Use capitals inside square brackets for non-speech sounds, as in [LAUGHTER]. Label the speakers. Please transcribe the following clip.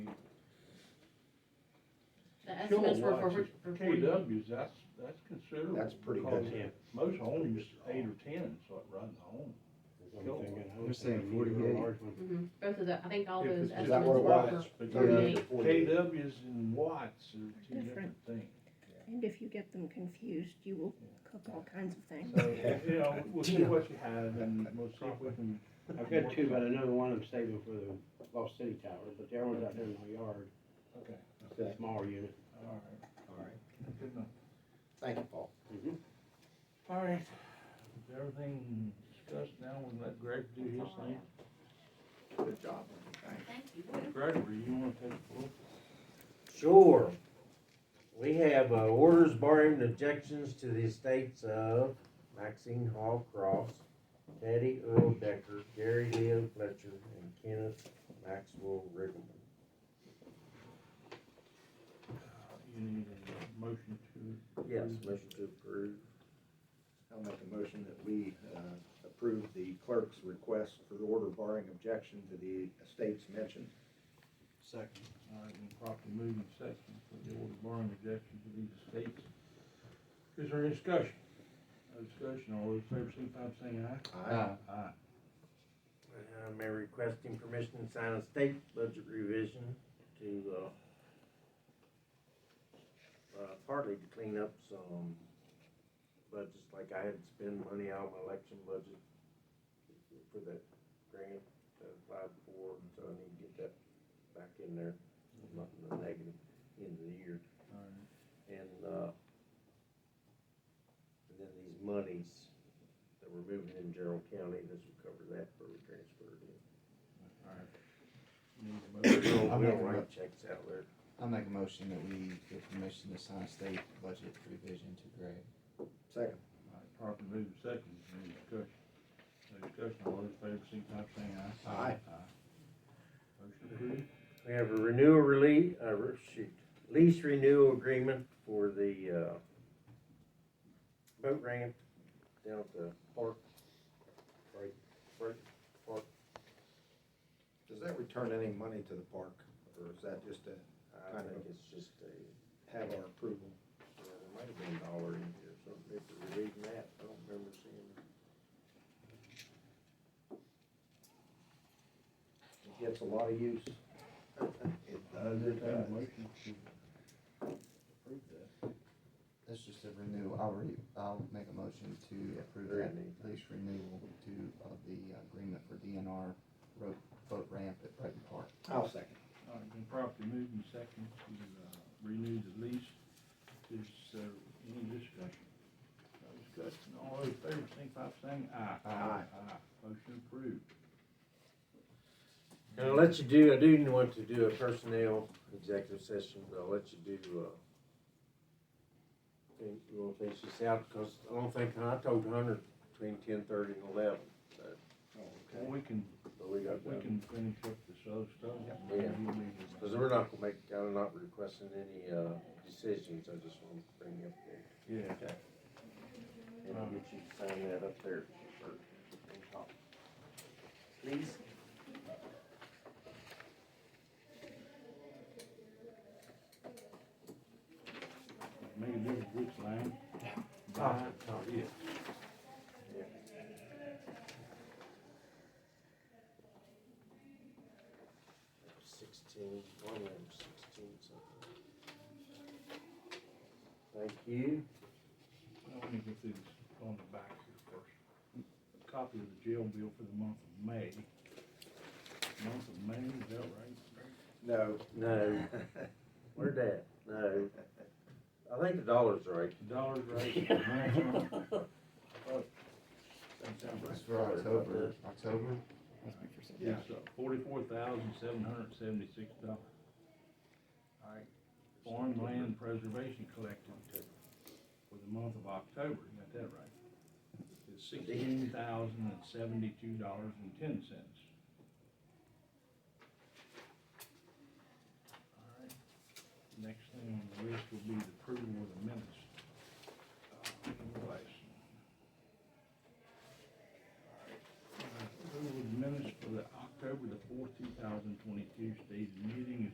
Speaker 1: The estimates were for,
Speaker 2: Kilowatts
Speaker 1: for
Speaker 2: is
Speaker 1: forty.
Speaker 2: KWs, that's, that's considerable.
Speaker 3: That's pretty
Speaker 2: because
Speaker 3: good.
Speaker 4: Yeah.
Speaker 2: Most homes, eight or ten, so it runs home.
Speaker 5: You're saying 48?
Speaker 1: Mhm. Both of the, I think all
Speaker 2: If
Speaker 1: those
Speaker 2: it's just-
Speaker 3: Is that
Speaker 1: estimates
Speaker 3: what it
Speaker 1: were
Speaker 3: was?
Speaker 1: for
Speaker 2: But
Speaker 1: forty-eight.
Speaker 3: Yeah, 48.
Speaker 2: KWs and watts are two different
Speaker 6: Different.
Speaker 2: things.
Speaker 6: And if you get them confused, you will cook all kinds of things.
Speaker 2: So,
Speaker 3: [LAUGHS]
Speaker 2: you know, we'll see what you have and we'll see if we can.
Speaker 4: I've got two, but I know one I'm saving for the Lost City Tower, but the other one's out there in my yard,
Speaker 2: Okay,
Speaker 4: It's a smaller unit.
Speaker 2: all
Speaker 3: All right,
Speaker 2: right, good enough.
Speaker 3: thank you, Paul.
Speaker 4: Mhm.
Speaker 2: All right, is everything discussed now, we'll let Greg do his thing.
Speaker 3: Good job.
Speaker 1: Thank you.
Speaker 2: Gregory, you wanna take the floor?
Speaker 7: Sure. We have uh, orders barring objections to the estates of Maxine Hall Cross, Teddy Earl Decker, Gary Leo Fletcher, and Kenneth Maxwell Riggleman.
Speaker 2: Uh, You need a motion to.
Speaker 7: Yes,
Speaker 3: Motion to approve. I'll make a motion that we uh, approve the clerk's request for order barring objection to the estates mentioned.
Speaker 5: Second.
Speaker 2: All right, we'll properly move in second for the order barring objection to these estates. Is there any discussion? No discussion, all those in favor, signify by saying aye.
Speaker 3: Aye.
Speaker 2: Aye.
Speaker 7: I Uh, may request him permission to sign a state budget revision to, uh, uh, partly to clean up some budgets, like I had to spend money out of my election budget for that grant that I applied for, so I need to get that back in there, not in the negative end of the year.
Speaker 2: All right.
Speaker 7: And, uh, and then these monies that we're moving in Gerald County, this will cover that for we transfer it in.
Speaker 2: All right. Need a motion.
Speaker 7: We'll,
Speaker 5: I'm
Speaker 7: we'll
Speaker 5: making
Speaker 7: write checks out there.
Speaker 5: I'll make a motion that we give permission to sign state budget revision to Greg.
Speaker 3: Second.
Speaker 2: All right, properly move in second, is there any discussion? No discussion, all those in favor, signify by saying aye.
Speaker 3: Aye.
Speaker 2: Motion approved.
Speaker 7: We have a renewal release, uh, re- shoot, lease renewal agreement for the, uh, boat ramp down at the park. Right, right, park.
Speaker 3: Does that return any money to the park, or is that just to
Speaker 7: I think it's just a,
Speaker 3: have our approval?
Speaker 7: uh, there might have been a dollar in here, or something, if we're reading that, I don't remember seeing it.
Speaker 3: It gets a lot of use. It
Speaker 2: Uh,
Speaker 3: does,
Speaker 2: there's
Speaker 3: it
Speaker 2: been a
Speaker 3: does.
Speaker 2: motion to approve that.
Speaker 5: That's just a renew, I'll re, I'll make a motion to approve that
Speaker 7: Renew.
Speaker 5: lease renewal to, of the agreement for DNR road, boat ramp at Brighton Park.
Speaker 3: I'll second.
Speaker 2: All right, been properly moved in second to, uh, renew the lease. Is there any discussion? No discussion, all those in favor, signify by saying aye.
Speaker 3: Aye.
Speaker 2: Aye, motion approved.
Speaker 7: And I'll let you do, I do want to do a personnel executive session, but I'll let you do, uh, think, you wanna finish this out, because I don't think, I told Hunter between ten thirty and eleven,
Speaker 3: Oh,
Speaker 2: And we can,
Speaker 7: but we got
Speaker 2: we
Speaker 7: done.
Speaker 2: can finish up this other stuff.
Speaker 7: Yeah.
Speaker 2: You'll need to-
Speaker 7: Because we're not gonna make, I'm not requesting any, uh, decisions, I just wanna bring you up there.
Speaker 2: Yeah.
Speaker 7: And I'll get you to sign that up there, or, on top. Please?
Speaker 2: Maybe this is which line?
Speaker 7: Ah, ah,
Speaker 2: yeah.
Speaker 7: Sixteen, one of them sixteen something. Thank you.
Speaker 2: I want to get through this on the back here first. A copy of the jail bill for the month of May. Month of May, is that right?
Speaker 3: No.
Speaker 7: No, where'd that? No. I think the dollar's right.
Speaker 2: Dollars right. [LAUGHS] That's right. That sounds right.
Speaker 5: It's for
Speaker 3: [LAUGHS]
Speaker 5: October, October?
Speaker 2: Yeah, so forty-four thousand, seven hundred and seventy-six dollars. All right, Farm Land Preservation Collective for the month of October, you got that right? It's sixteen thousand and seventy-two dollars and ten cents. All right, next thing on the Uh, list will be the